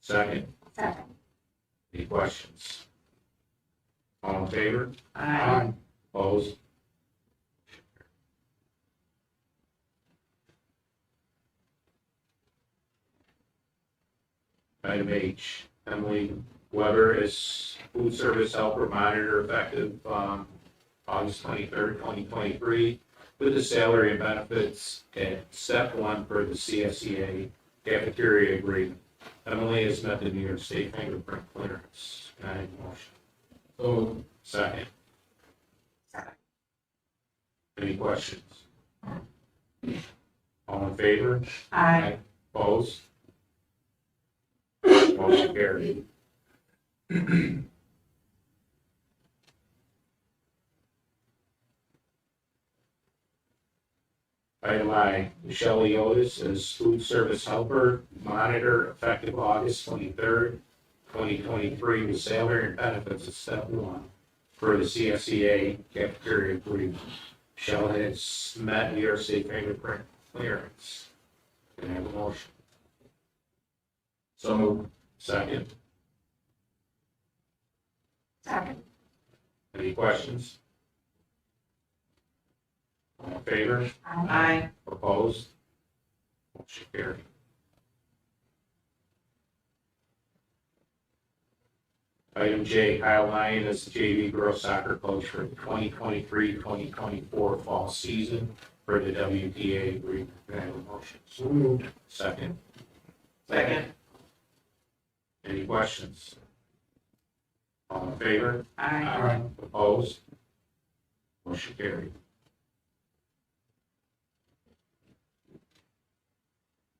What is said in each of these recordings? Second, Second. any questions? All in favor? Aye. Opposed? Item H, Emily Weber is food service helper monitor effective, um, August twenty-third, twenty twenty-three, with the salary and benefits at step one for the CSEA cafeteria agreement. Emily has met the New York State fingerprint clearance. Can I have a motion? So. Second. Second. Any questions? All in favor? Aye. Opposed? Motion carried. Item I, Michelle Leotis as food service helper, monitor effective August twenty-third, twenty twenty-three, with salary and benefits of step one for the CSEA cafeteria agreement. Michelle has met New York State fingerprint clearance. Can I have a motion? So moved. Second. Second. Any questions? All in favor? Aye. Opposed? Motion carried. Item J, Kyle Lyon is the JV girls soccer coach for the 2023-2024 fall season for the WPA agreement. Can I have a motion? So moved. Second. Second. Any questions? All in favor? Aye. Opposed? Motion carried.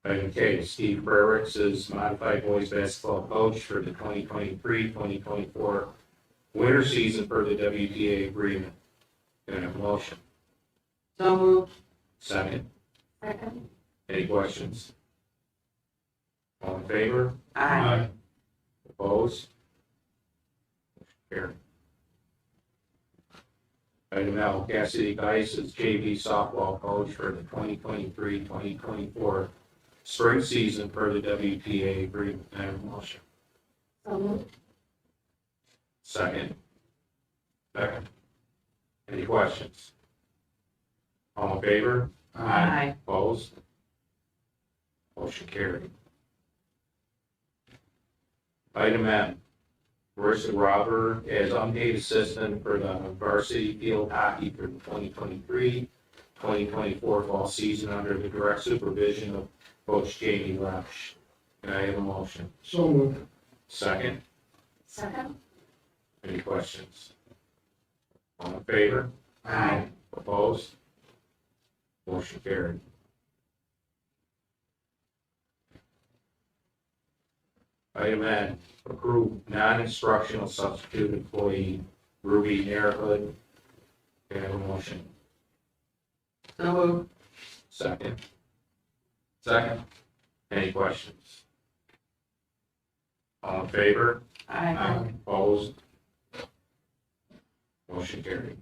Item K, Steve Frericks is modified boys basketball coach for the 2023-2024 winter season for the WPA agreement. Can I have a motion? So moved. Second, Second. any questions? All in favor? Aye. Opposed? Carried. Item L, Cassidy Geis is JV softball coach for the 2023-2024 spring season per the WPA agreement. Can I have a motion? So moved. Second. Second. Any questions? All in favor? Opposed? Motion carried. Item M, Marissa Robber as unpaid assistant for the varsity field hockey for the 2023-2024 fall season under the direct supervision of Coach Jamie Lesh. Can I have a motion? So moved. Second, Second. any questions? All in favor? Aye. Opposed? Motion carried. Item N, approve non-instructional substitute employee Ruby Nairhood. Can I have a motion? So moved. Second? Second. Any questions? All in favor? Aye. Opposed? Motion carried.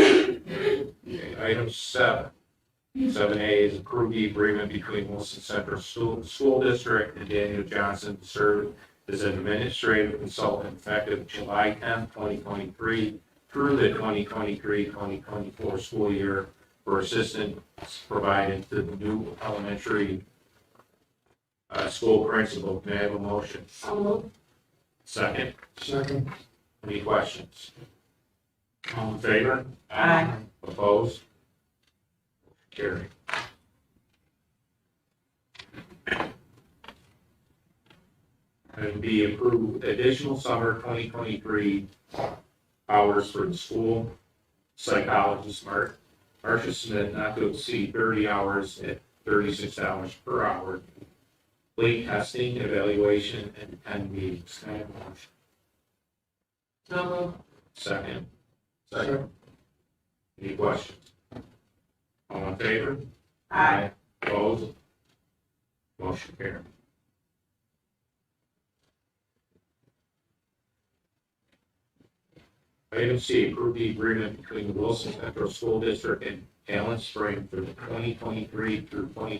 Okay, Item seven. Seven A is approve the agreement between Wilson Central School, School District and Daniel Johnson to serve as an administrative consultant effective July tenth, twenty twenty-three through the 2023-2024 school year for assistance provided to the new elementary uh, school principal. May I have a motion? So moved. Second, Second. any questions? All in favor? Aye. Opposed? Carried. Item B, approve additional summer 2023 hours for the school psychologist Mar- Marcia Smith not to exceed 30 hours at $36 per hour. Complete testing, evaluation, and and meetings. Can I have a motion? So moved. Second. Any questions? All in favor? Opposed? Motion carried. Item C, approve the agreement between the Wilson Central School District and Allen Spring for the 2023 through 2024